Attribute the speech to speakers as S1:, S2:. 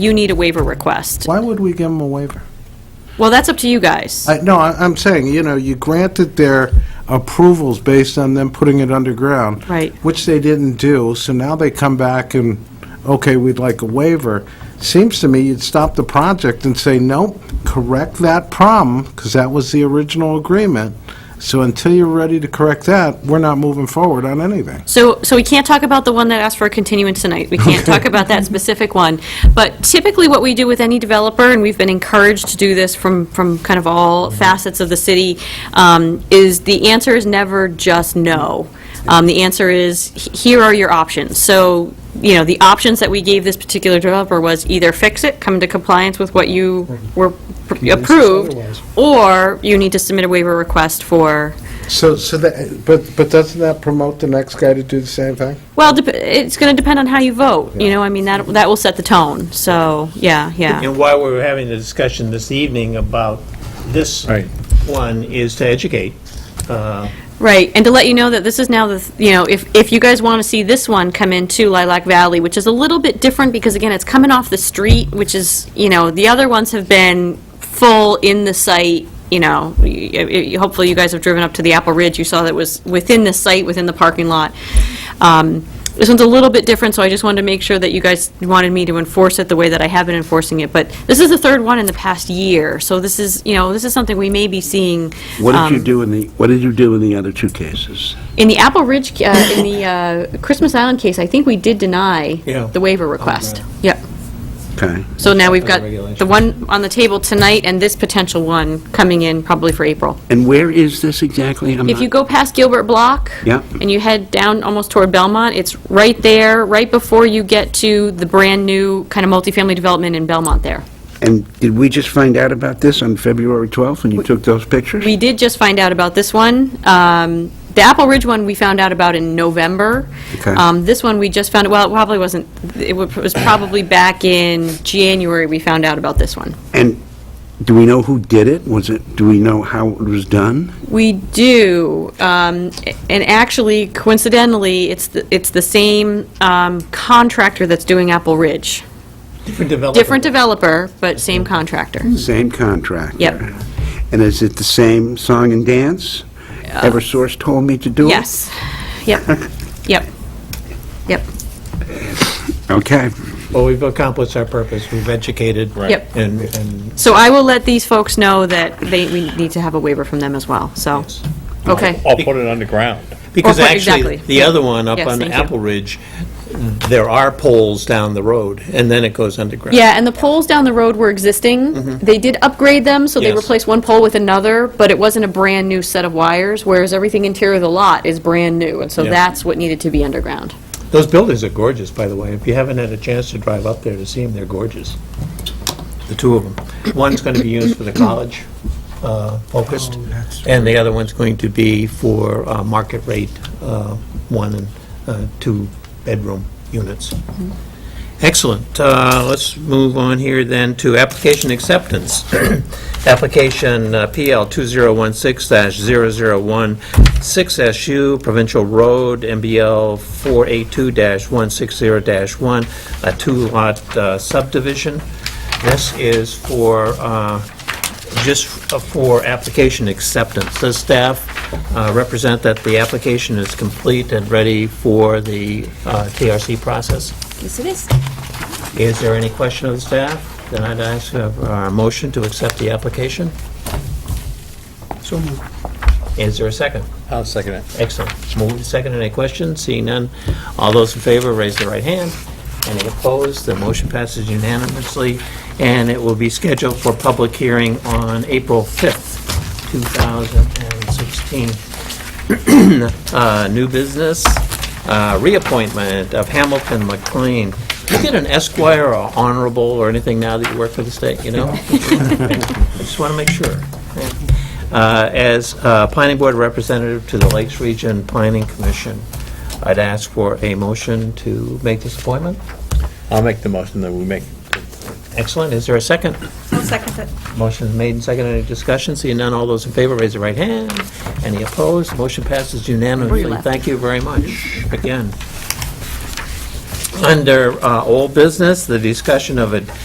S1: you need a waiver request.
S2: Why would we give them a waiver?
S1: Well, that's up to you guys.
S2: I, no, I, I'm saying, you know, you granted their approvals based on them putting it underground.
S1: Right.
S2: Which they didn't do, so now they come back and, okay, we'd like a waiver. Seems to me you'd stop the project and say, nope, correct that problem, because that was the original agreement. So until you're ready to correct that, we're not moving forward on anything.
S1: So, so we can't talk about the one that asked for a continuance tonight. We can't talk about that specific one. But typically, what we do with any developer, and we've been encouraged to do this from, from kind of all facets of the city, um, is the answer is never just no. Um, The answer is, "H- here are your options. So, you know, the options that we gave this particular developer was either fix it, come into compliance with what you were pr-
S3: Convince us
S1: approved,
S3: otherwise.
S1: or you need to submit a waiver request for
S2: So, so that, but, but doesn't that promote the next guy to do the same thing?
S1: Well, dep- it's going to depend on how you vote, you know, I mean, that, that will set the tone, so, yeah, yeah.
S4: And why we we're having the discussion this evening about this
S3: Right.
S4: one is to educate. uh,
S1: Right, and to let you know that this is now the, th- you know, if, if you guys want to see this one come into Lilac Valley, which is a little bit different, because again, it's coming off the street, which is, you know, the other ones have been full in the site, you know, y- y- hopefully you guys have driven up to the Apple Ridge, you saw that was within the site, within the parking lot. Um, This one's a little bit different, so I just wanted to make sure that you guys wanted me to enforce it the way that I have been enforcing it. But this is the third one in the past year, so this is, you know, this is something we may be seeing.
S5: What did
S1: um,
S5: you do in the, what did you do in the other two cases?
S1: In the Apple Ridge, ca- uh, in the uh, Christmas Island case, I think we did deny
S4: Yeah.
S1: the waiver request. Yep.
S5: Okay.
S1: So now we've got the
S4: regulation.
S1: one on the table tonight and this potential one coming in probably for April.
S5: And where is this exactly? I'm
S1: If
S5: not-
S1: you go past Gilbert Block.
S5: Yep.
S1: And you head down almost toward Belmont, it's right there, right before you get to the brand-new kind of multifamily development in Belmont there.
S5: And did we just find out about this on February 12th when you took those pictures?
S1: We did just find out about this one. Um, The Apple Ridge one, we found out about in November.
S5: Okay.
S1: Um, This one, we just found, well, it probably wasn't, it wa- was probably back in January we found out about this one.
S5: And do we know who did it? Was it, do we know how it was done?
S1: We do, um, and actually coincidentally, it's, the it's the same um, contractor that's doing Apple Ridge.
S4: Different developer.
S1: Different developer, but same contractor.
S5: Same contractor?
S1: Yep.
S5: And is it the same song and dance? Eversource told me to do it?
S1: Uh, Yes. Yep, yep, yep.
S5: Okay.
S4: Well, we've accomplished our purpose, we've educated.
S1: Yep.
S4: And, and
S1: So I will let these folks know that they, we need to have a waiver from them as well, so, okay.
S6: I'll put it underground.
S4: because
S1: Or- Oh,
S4: actually,
S1: exactly.
S4: the other one up
S1: Yes,
S4: on
S1: thank you.
S4: Apple Ridge, there are poles down the road, and then it goes underground.
S1: Yeah, and the poles down the road were existing. They did upgrade them, so they
S4: Mm-hmm. Yes.
S1: replaced one pole with another, but it wasn't a brand-new set of wires, whereas everything interior of the lot is brand-new, and so
S4: Yeah.
S1: that's what needed to be underground.
S4: Those buildings are gorgeous, by the way. If you haven't had a chance to drive up there to see them, they're gorgeous. The two of them. One's going to be used for the college uh, focused, and the other one's going to be for uh, market rate, uh, one and uh, two bedroom units. Excellent. Uh, Let's move on here then to application acceptance. Application uh, PL 2016-001, 6SU Provincial Road, MBL 482-160-1, a two-lot uh, subdivision. This is for, uh, just for application acceptance. Does staff uh, represent that the application is complete and ready for the uh, TRC process?
S7: Yes, it is.
S4: Is there any question of the staff? Then I'd ask for a motion to accept the application. So moved. Is there a second?
S6: I'll second it.
S4: Excellent. Moved and seconded. Any questions? Seeing none. All those in favor, raise their right hand. Any opposed? The motion passes unanimously, and it will be scheduled for public hearing on April 5th, 2016. Uh, New business, uh, reappointment of Hamilton McLean. You get an Esquire or Honorable or anything now that you work for the state, you know? I just want to make sure. Uh, As uh, Planning Board Representative to the Lakes Region Planning Commission, I'd ask for a motion to make this appointment.
S6: I'll make the motion that we make.
S4: Excellent. Is there a second?
S7: I'll second it.
S4: Motion is made and seconded. Any discussion? Seeing none, all those in favor, raise your right hand. Any opposed? Motion passes unanimously.
S1: left.
S4: Thank you very much, again. Under uh, old business, the discussion of a